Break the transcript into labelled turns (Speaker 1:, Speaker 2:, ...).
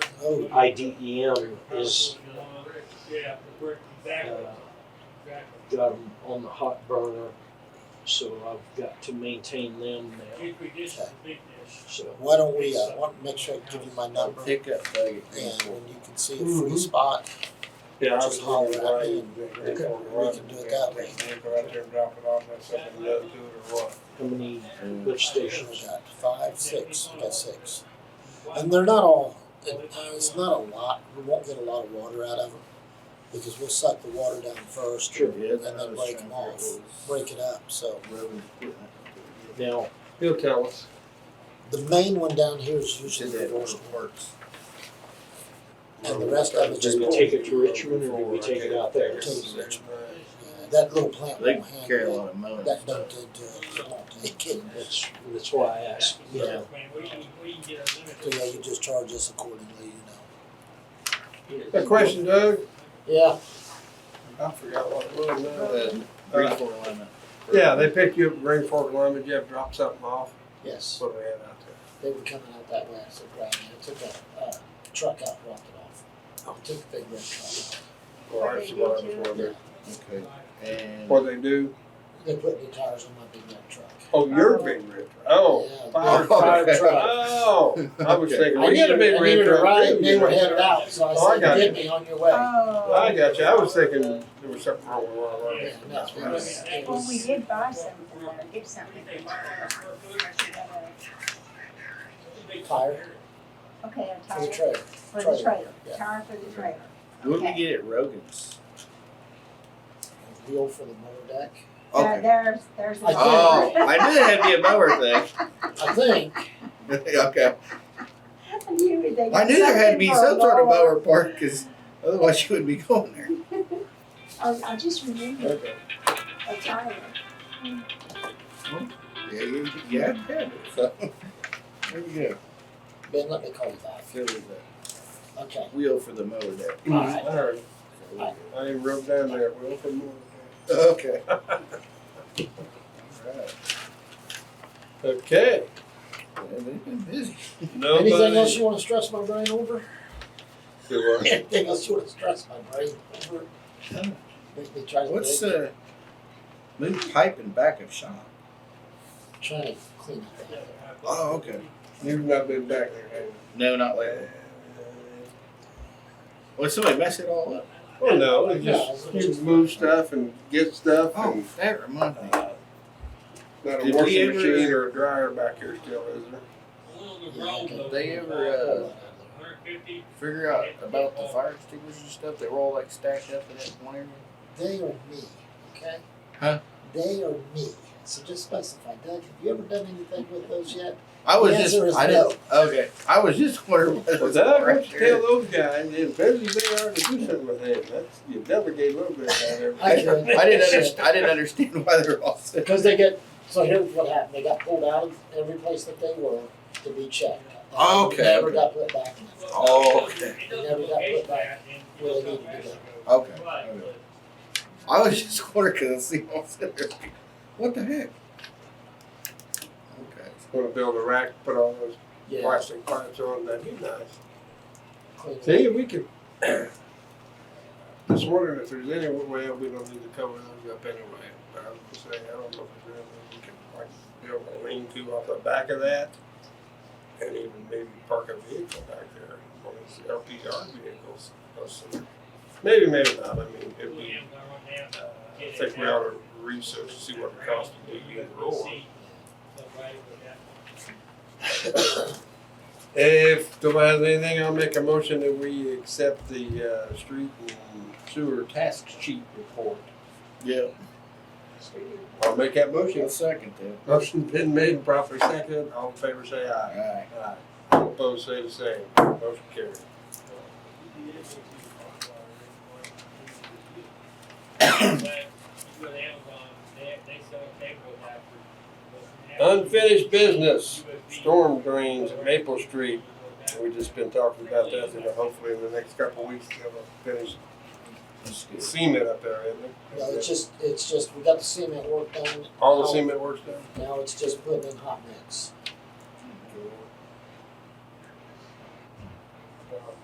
Speaker 1: IDEM E is uh, got them um, on the hot burner, so I've got to maintain them now. So
Speaker 2: Why don't we, uh, want, make sure I give you my number and
Speaker 3: Pick up Doug at
Speaker 2: when
Speaker 3: Greenport.
Speaker 2: you can see a
Speaker 3: Mm-hmm.
Speaker 2: free spot,
Speaker 4: Yeah, I was
Speaker 2: just holler at me.
Speaker 4: We
Speaker 2: can do it that way.
Speaker 4: Right there, drop it off, that's something to it or what?
Speaker 1: how many
Speaker 3: And
Speaker 1: lift
Speaker 2: We
Speaker 1: stations?
Speaker 2: got five, six, we got six. And they're not all, it- uh, it's not a lot, we won't get a lot of water out of them, because we'll suck the water down first,
Speaker 1: Sure.
Speaker 3: Yeah,
Speaker 2: And then break 'em off. break it up, so.
Speaker 1: Now,
Speaker 4: He'll tell us.
Speaker 2: The main one down here is
Speaker 3: She
Speaker 2: usually the
Speaker 3: did
Speaker 2: worst,
Speaker 3: work works.
Speaker 2: and the rest of it
Speaker 1: do
Speaker 2: just uh,
Speaker 1: we
Speaker 2: pulls.
Speaker 1: take it to Richmond or do we take it out there?
Speaker 2: Take it. Yeah, That little plant
Speaker 3: They
Speaker 2: won't handle
Speaker 3: carry a
Speaker 2: it.
Speaker 3: lot of money.
Speaker 2: That don't do it to it, it won't take it.
Speaker 1: That's, that's why I asked.
Speaker 2: Yeah. So yeah,
Speaker 5: Yeah.
Speaker 2: you just charge us accordingly, you
Speaker 4: A question, Doug?
Speaker 2: know.
Speaker 4: I forgot what it was now.
Speaker 3: Uh, Greenport alignment.
Speaker 4: Yeah, they picked you up at Green Fork Lineman, you have to drop something off, that's
Speaker 2: Yes,
Speaker 4: what we had out there.
Speaker 2: they were coming out that way, I said, Brian, I took a, uh, truck out, dropped it
Speaker 4: Oh.
Speaker 2: off. I took the big red truck out.
Speaker 4: Well, that's what Oh, I was wondering.
Speaker 3: Okay, and
Speaker 4: What they do,
Speaker 2: They put new tires on my big red truck.
Speaker 4: oh, you're being ripped, oh,
Speaker 2: Yeah,
Speaker 4: fire
Speaker 2: big fire
Speaker 4: truck.
Speaker 2: truck.
Speaker 4: Oh, I was thinking,
Speaker 2: I
Speaker 4: we
Speaker 2: needed,
Speaker 4: had
Speaker 2: I
Speaker 4: a big
Speaker 2: needed
Speaker 4: red
Speaker 2: a
Speaker 4: truck.
Speaker 2: ride, and
Speaker 4: too.
Speaker 2: they were headed out, so
Speaker 4: Oh, I
Speaker 2: I said,
Speaker 4: got
Speaker 2: get me on your way.
Speaker 4: I got you, I was thinking there was something wrong with one of
Speaker 2: Yeah,
Speaker 4: ours.
Speaker 2: no, it was- it
Speaker 6: Well, we
Speaker 2: was-
Speaker 6: did buy something, or get something.
Speaker 2: Tire
Speaker 6: Okay, a
Speaker 2: for the
Speaker 6: tire
Speaker 2: trailer.
Speaker 6: for the
Speaker 2: trailer,
Speaker 6: trailer,
Speaker 2: yeah.
Speaker 6: tire for the trailer.
Speaker 3: what did we
Speaker 6: Okay.
Speaker 3: get at Rogan's?
Speaker 2: A Wheel for the motor deck.
Speaker 6: Uh, There's, there's. a-
Speaker 3: Oh, I knew it had to be a mower thing.
Speaker 2: I think,
Speaker 3: Okay,
Speaker 6: I knew they.
Speaker 3: I knew there had to be
Speaker 6: something for a
Speaker 3: some sort of
Speaker 6: mower.
Speaker 3: mower part, cause otherwise you wouldn't be going there.
Speaker 6: Oh, I just remembered
Speaker 4: Okay.
Speaker 6: a tire.
Speaker 3: Yeah, you, you had to have it, so. There you go.
Speaker 2: Ben, let me call you back.
Speaker 3: There was a
Speaker 2: Okay.
Speaker 3: wheel for the mower there.
Speaker 2: Alright.
Speaker 4: I heard, I even wrote down there, we'll put more.
Speaker 3: Okay. Alright,
Speaker 4: Okay,
Speaker 3: yeah, they've been busy.
Speaker 4: nobody.
Speaker 2: Anything else you wanna stress my brain over?
Speaker 4: Do what?
Speaker 2: Anything else you wanna stress my brain over? Make me try to
Speaker 3: What's,
Speaker 2: think,
Speaker 3: uh, move pipe and backup shop?
Speaker 2: trying to clean up that.
Speaker 3: Oh, okay.
Speaker 4: You've not been back there,
Speaker 3: No, not
Speaker 4: have
Speaker 3: lately.
Speaker 4: you?
Speaker 3: Well, somebody messed it all up.
Speaker 4: Well, no, it just, you move stuff and get stuff
Speaker 3: Oh,
Speaker 4: and,
Speaker 3: that reminds me.
Speaker 4: uh, not a
Speaker 3: Did we
Speaker 4: washing
Speaker 3: ever-
Speaker 4: machine or a dryer back here still, is there?
Speaker 2: Did
Speaker 3: they ever, uh, Figure out about the fire extinguishers and stuff, they were all like stacked up in that one area.
Speaker 2: They are me, okay?
Speaker 3: Huh?
Speaker 2: They are me, so just specify, Doug, have you ever done anything with those yet?
Speaker 3: I was
Speaker 2: The
Speaker 3: just,
Speaker 2: answer is
Speaker 3: I didn't, okay, I was just wondering what
Speaker 4: Well,
Speaker 3: was
Speaker 4: that,
Speaker 3: right
Speaker 4: tell
Speaker 3: there.
Speaker 4: those guys, as busy they are to do something with them, that's, you delegate a little bit down there.
Speaker 2: I can-
Speaker 3: I didn't understand, I didn't understand why they were all set.
Speaker 2: Because they get, so here's what happened, they got pulled out of every place that they were to be checked.
Speaker 3: Okay,
Speaker 2: Never
Speaker 3: okay.
Speaker 2: got put back in.
Speaker 3: Oh, okay.
Speaker 2: never got put back where they needed to go.
Speaker 3: Okay. okay. I was just wondering because I see all set there. What the heck? Okay.
Speaker 4: Wanna build a rack, put all those
Speaker 2: Yeah.
Speaker 4: plastic pipes on, that'd be nice.
Speaker 2: clean it
Speaker 4: See, we could, just wondering if there's any way we don't need to cover those up anyway. But I was just saying, I don't know if there's anything we can like build a lean to off the back of that. And even maybe park a vehicle back there, one of these LPR vehicles. or something. Maybe, maybe not, I mean, it'd be, uh, I think we ought to research, and see what it costs to do either or. If nobody has anything, I'll make a motion that we accept the, uh, street and sewer task sheet report.
Speaker 3: Yeah.
Speaker 4: I'll make that motion.
Speaker 3: I'll second that.
Speaker 4: Motion been made, properly seconded, all in favor say aye.
Speaker 3: Alright.
Speaker 4: Aye. All opposed say the same, motion carried. Unfinished business, storm drains at Maple Street. We've just been talking about that, and hopefully in the next couple of weeks they'll finish
Speaker 3: That's
Speaker 4: the
Speaker 3: good.
Speaker 4: cement up there, isn't it?
Speaker 2: No, it's just, it's just, we got the cement work done.
Speaker 4: All the
Speaker 2: Now-
Speaker 4: cement works done?
Speaker 2: Now it's just putting in hot mix.